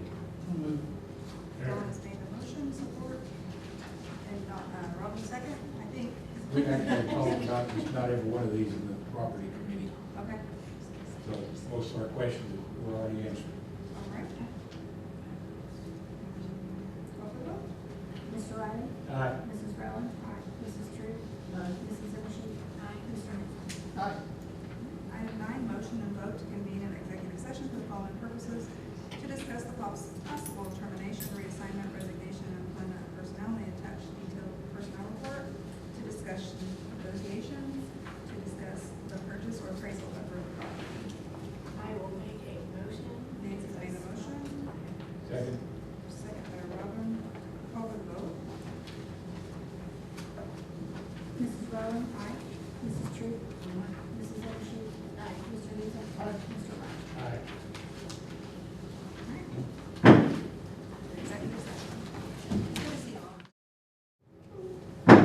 uh, we actually told not, it's not every one of these in the property committee. Okay, So most of our questions were already answered. all right. Call for the vote. Mr. Riley? Aye. Mrs. Rowland? Mrs. Drew? Mrs. Zimshin? Mr. Henson? Aye. Item nine, motion and vote to convene an executive session for the following purposes: to discuss the poss- possible termination, reassignment, resignation, and employment of personnel, the attached detailed personnel report, to discuss negotiations, to discuss the purchase or appraisal of real property. I will make a motion. Nancy's made a motion, Second? second by Robin, call for the vote. Mrs. Rowland? Aye. Mrs. Drew? Mrs. Zimshin? Mr. Henson? Mr. Riley? Aye. Executive session. Good to see you all. All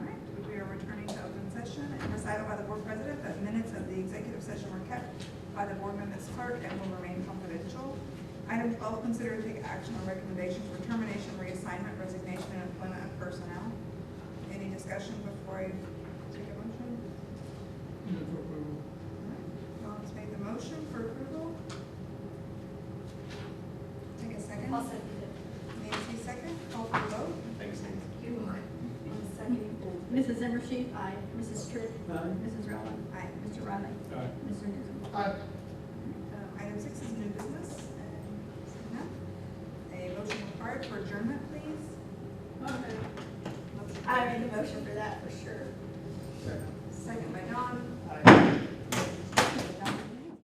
right, we are returning to open session and recited by the board president that minutes of the executive session were kept by the board members clerk and will remain confidential. Item twelve, consider to take action on recommendations for termination, reassignment, resignation, and employment of personnel. Any discussion before I take a motion? Move for approval. Dawn's made the motion for approval. Take a 2nd I'll second it. Nancy second, call for the vote. Thanks, Nancy. You are. On the second. Mrs. Zimshin? Aye. Mrs. Drew? Aye. Mrs. Rowland? Aye. Mr. Riley? Aye. Mr. Henson? Aye. Um, Item six is new business. and seeing none. A motion required for adjournment, please. I made a motion for that for sure. Second.